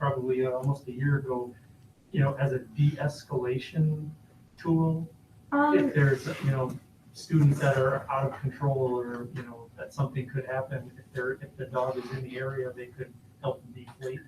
probably uh, almost a year ago, you know, as a de-escalation tool. If Um, there's, you know, students that are out of control or, you know, that something could happen, if they're, if the dog is in the area, they could help deflate.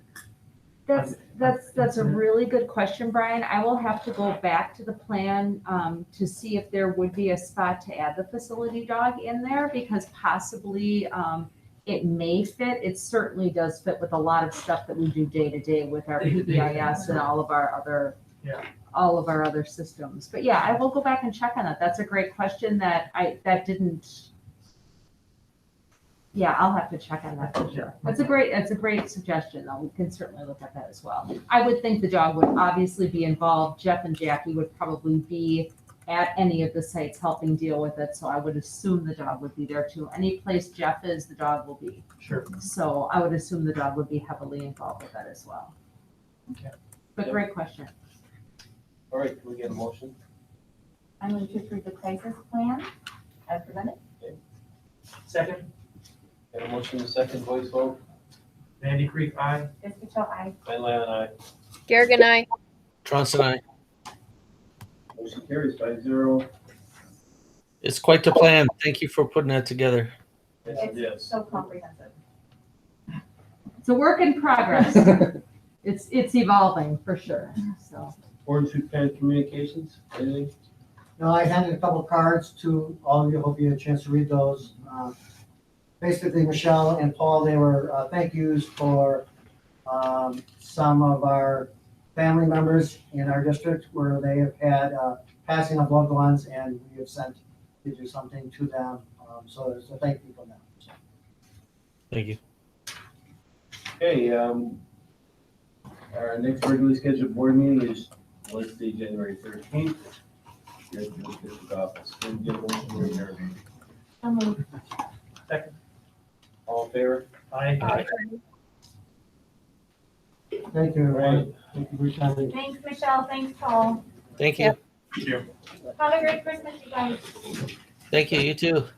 that's, that's, that's a Mhm. really good question, Brian. I will have to go back to the plan, um, to see if there would be a spot to add the facility dog in there because possibly, um, it may fit. It certainly does fit with a lot of stuff that we do day to day with our Day-to-day, PBIS and all of our other, Yeah. all of our other systems. But yeah, I will go back and check on that. That's a great question that I, that didn't, yeah, I'll have to check on that for sure. That's a great, that's a great suggestion, though. We can certainly look at that as well. I would think the dog would obviously be involved. Jeff and Jackie would probably be at any of the sites helping deal with it, so I would assume the dog would be there too. Any place Jeff is, the dog will be. Sure. So I would assume the dog would be heavily involved with that as well. Okay. But great question. All right, can we get a motion? I'm going to approve the crisis plan as presented. Second, Got a motion, a second voice vote, Vandy Creek, I. Fiscal I, Van Layden, aye. Garrick and I. Johnson, I. Motion carries five zero. It's quite the plan. Thank you for putting that together. Yes, it it's is. so comprehensive. It's a work in progress. It's, it's evolving for sure, so. Board Food Plan Communications, anything? No, I handed a couple cards to all of you, hope you had a chance to read those. Um, Basically, Michelle and Paul, they were uh, thank yous for um, some of our family members in our district where they have had uh, passing of loved ones and we have sent to do something to them. Um, So there's a thank you from them. So Thank you. Okay, um, our next regularly scheduled board meeting is Wednesday, January thirteenth. Here at the district office. Can we get a motion to adjourn? So moved. All in favor? I. Thank you, everyone. Thank you for your time. Thanks, Michelle. Thanks, Paul. Thank you. Yeah. Have a great Christmas, you guys. Thank you. You too.